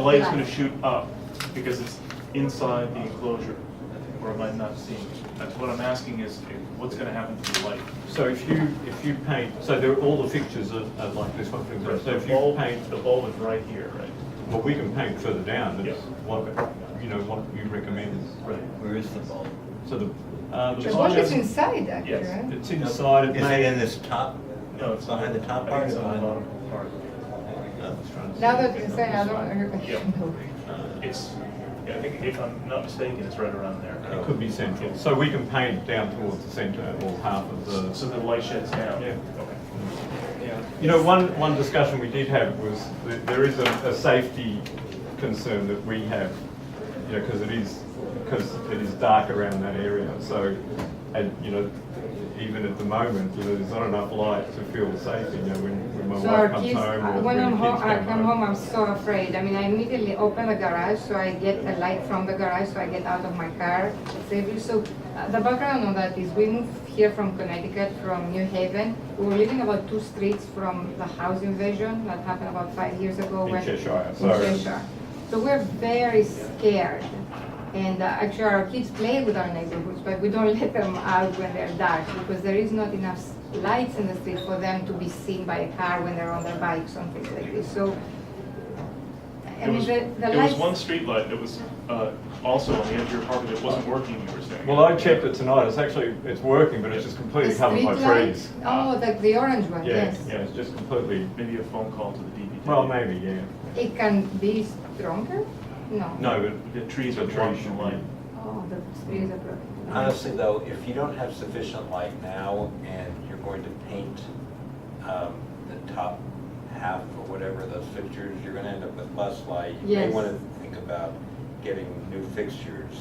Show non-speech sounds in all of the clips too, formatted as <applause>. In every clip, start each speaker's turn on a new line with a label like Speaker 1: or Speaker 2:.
Speaker 1: light's gonna shoot up because it's inside the enclosure, or am I not seeing? it? That's what I'm asking is, eh, what's gonna happen to the light?
Speaker 2: So if you, if you paint, so there, all the fixtures are, are like this one, for example, so
Speaker 1: The
Speaker 2: if you
Speaker 1: bulb,
Speaker 2: paint,
Speaker 1: the bulb is right here, right?
Speaker 2: well, we can paint further down, that's
Speaker 1: Yeah.
Speaker 2: what, you know, what you recommend.
Speaker 1: Right.
Speaker 3: Where is the bulb?
Speaker 2: So the, uh, the
Speaker 4: The
Speaker 1: bulb
Speaker 4: bulb
Speaker 2: bulb,
Speaker 4: is
Speaker 1: just-
Speaker 4: inside, actually,
Speaker 1: Yes,
Speaker 4: right?
Speaker 2: it's inside, it
Speaker 3: Is it in
Speaker 2: may,
Speaker 3: this top?
Speaker 1: No, it's not.
Speaker 3: Behind the top
Speaker 1: I
Speaker 3: part?
Speaker 1: think it's
Speaker 3: or
Speaker 1: on the
Speaker 3: behind-
Speaker 1: bottom part.
Speaker 3: No.
Speaker 4: Now that it's inside, I don't, I
Speaker 1: Yeah.
Speaker 4: don't know.
Speaker 1: Uh, It's, yeah, I think if I'm not mistaken, it's right around there.
Speaker 2: it could be central, so we can paint down towards the centre or half of the.
Speaker 1: So the light sheds down?
Speaker 2: Yeah.
Speaker 1: Okay.
Speaker 2: You know, one, one discussion we did have was that there is a, a safety concern that we have, you know, because it is, because it is dark around that area. So, and, you know, even at the moment, you know, there's not enough light to feel safe, you know, when, when my
Speaker 5: So
Speaker 2: wife
Speaker 5: our
Speaker 2: comes
Speaker 5: kids,
Speaker 2: home or when
Speaker 5: uh, when
Speaker 2: the
Speaker 5: I'm home,
Speaker 2: kids
Speaker 5: I come
Speaker 2: come
Speaker 5: home, I'm
Speaker 2: home.
Speaker 5: so afraid. I mean, I immediately open the garage, so I get the light from the garage, so I get out of my car safely. So uh, the background on that is we moved here from Connecticut, from New Haven. We were living about two streets from the house invasion that happened about five years ago.
Speaker 2: In
Speaker 5: when-
Speaker 2: Cheshire,
Speaker 5: in
Speaker 2: sorry.
Speaker 5: Cheshire. So we're very scared. And uh, actually, our kids play with our neighborhoods, but we don't <laughs> let them out when they're dark because there is not enough s- lights in the street for them to be seen by a car when they're on their bikes and things like this. So, I
Speaker 1: There
Speaker 5: mean,
Speaker 1: was,
Speaker 5: the, the
Speaker 1: there was
Speaker 5: lights.
Speaker 1: one streetlight that was uh, also on the edge of your property that wasn't working, you were saying.
Speaker 2: Well, I checked it tonight. It's actually, it's working, but it's just completely
Speaker 5: the
Speaker 2: covered by
Speaker 5: street light-
Speaker 2: trees.
Speaker 5: Oh, the, the orange one,
Speaker 2: Yeah,
Speaker 5: yes.
Speaker 2: yeah, it's just completely,
Speaker 1: Maybe a phone call to the DPW.
Speaker 2: well, maybe, yeah.
Speaker 5: It can be stronger? No.
Speaker 2: No, but
Speaker 1: The trees are
Speaker 2: The trees
Speaker 1: blocking the
Speaker 2: should be-
Speaker 1: light.
Speaker 5: Oh, the trees are broken.
Speaker 3: Honestly, though, if you don't have sufficient light now and you're going to paint um, the top half or whatever of those fixtures, you're going to end up with less light. You may
Speaker 5: Yes.
Speaker 3: want to think about getting new fixtures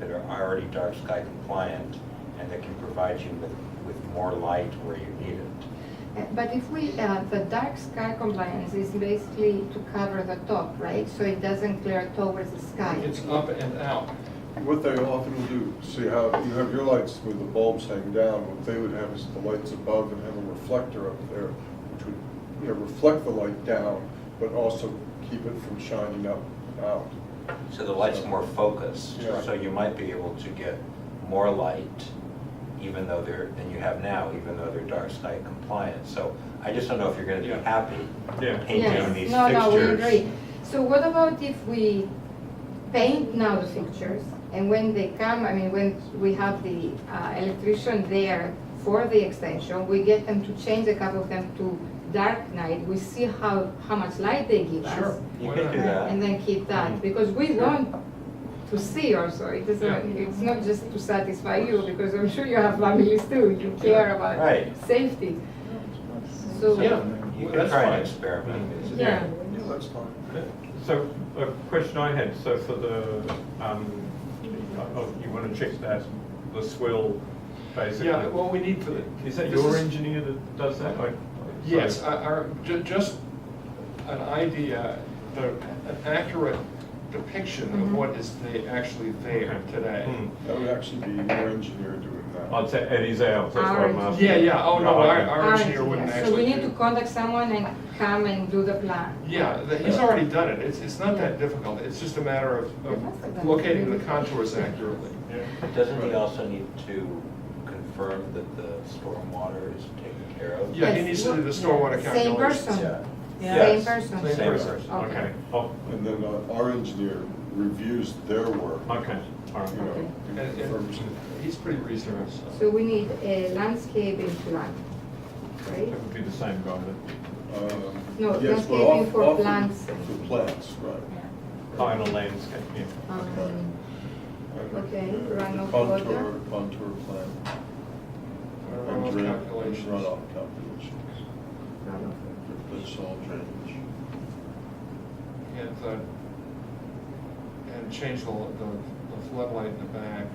Speaker 3: that are already dark sky compliant and that can provide you with, with more light where you need it.
Speaker 5: Uh, But if we, uh, the dark sky compliance is basically to cover the top, right? So it doesn't glare towards the sky.
Speaker 6: It's up and out.
Speaker 7: What they often will do, see how you have your lights with the bulbs hanging down, what they would have is the lights above and have a reflector up there, which would, you know, reflect the light down, but also keep it from shining up and out.
Speaker 3: So the light's more focused,
Speaker 7: Yeah.
Speaker 3: so you might be able to get more light even though they're, than you have now, even though they're dark sky compliant. So I just don't know if you're going to
Speaker 2: Yeah.
Speaker 3: be happy
Speaker 2: Yeah.
Speaker 3: painting these fixtures.
Speaker 5: Yes, no, no, we agree. So what about if we paint now the fixtures, and when they come, I mean, when we have the uh, electrician there for the extension, we get them to change a couple of them to dark night, we see how, how much light they give us.
Speaker 6: Sure.
Speaker 3: You could do that.
Speaker 5: And then keep that,
Speaker 3: Mm-hmm.
Speaker 5: because we want to see also, it doesn't, it's not just to satisfy you, because I'm sure you have families too, you care
Speaker 3: Right.
Speaker 5: about safety.
Speaker 6: Yeah,
Speaker 5: So,
Speaker 3: You could
Speaker 6: that's
Speaker 3: try
Speaker 6: fine.
Speaker 3: and experiment.
Speaker 5: yeah.
Speaker 7: Yeah, that's fine.
Speaker 2: So a question I had, so for the, um, oh, you want to check that, the swell, basically?
Speaker 6: Yeah, well, we need for the.
Speaker 2: Is that
Speaker 6: this
Speaker 2: your engineer that does that? I- I-
Speaker 6: Yes,
Speaker 2: sorry.
Speaker 6: I- our, ju- just an idea, the- an accurate depiction of what is the- actually there
Speaker 2: Okay.
Speaker 6: today.
Speaker 2: Hmm.
Speaker 7: That would actually be your engineer doing that.
Speaker 2: I'd say it is ours, that's what I'm
Speaker 5: Ours.
Speaker 2: asking.
Speaker 6: Yeah, yeah, oh, no,
Speaker 2: Right,
Speaker 6: our,
Speaker 2: okay.
Speaker 6: our engineer wouldn't
Speaker 5: Alright, yeah. So we
Speaker 6: actually.
Speaker 5: need to
Speaker 6: do-
Speaker 5: contact someone and come and do the plan.
Speaker 6: Yeah, the- he's already done it, it's, it's not that difficult, it's just a matter of,
Speaker 5: Yeah, that's
Speaker 6: of
Speaker 5: about-
Speaker 6: locating the contours accurately.
Speaker 3: Doesn't he also need to confirm that the stormwater is taken care of?
Speaker 6: Yeah, he
Speaker 5: Yes.
Speaker 6: needs to do the stormwater
Speaker 5: Same
Speaker 6: calculations.
Speaker 5: person.
Speaker 3: Yeah.
Speaker 5: Same
Speaker 3: Yes.
Speaker 5: person.
Speaker 3: Same person.
Speaker 5: Okay.
Speaker 2: Okay, oh,
Speaker 7: And then uh, our engineer reviews their work,
Speaker 2: okay, all
Speaker 7: you
Speaker 2: right.
Speaker 7: know,
Speaker 6: And,
Speaker 7: and confirms
Speaker 6: and
Speaker 7: it.
Speaker 6: he's pretty reasonable,
Speaker 5: So we need a landscaping plan,
Speaker 2: It
Speaker 5: right?
Speaker 2: would be the same guy
Speaker 7: Um,
Speaker 5: No,
Speaker 7: yes,
Speaker 5: that's
Speaker 7: but
Speaker 5: maybe
Speaker 7: off-
Speaker 5: for
Speaker 7: often
Speaker 5: plants.
Speaker 7: For plants, right.
Speaker 2: that, final landscape, yeah.
Speaker 5: Um, Okay,
Speaker 7: Uh,
Speaker 5: runoff water.
Speaker 7: Contour, contour plan.
Speaker 6: runoff
Speaker 7: Drain-
Speaker 6: calculations.
Speaker 7: Runoff calculation. That's all drainage.
Speaker 6: and, uh, and change the, the the floodlight in the back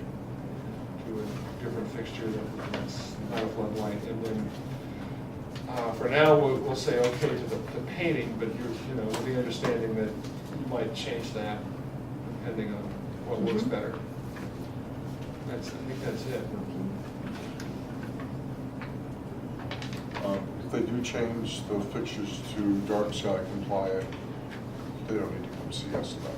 Speaker 6: to a different fixture that- that's not a floodlight, and then, uh, for now, we'll, we'll say okay to the, the painting, but you're, you know, with the understanding that you might change that depending on what looks better. That's, I think that's it.
Speaker 7: Um, If they do change the fixtures to dark sky compliant, they don't need to come see us about it.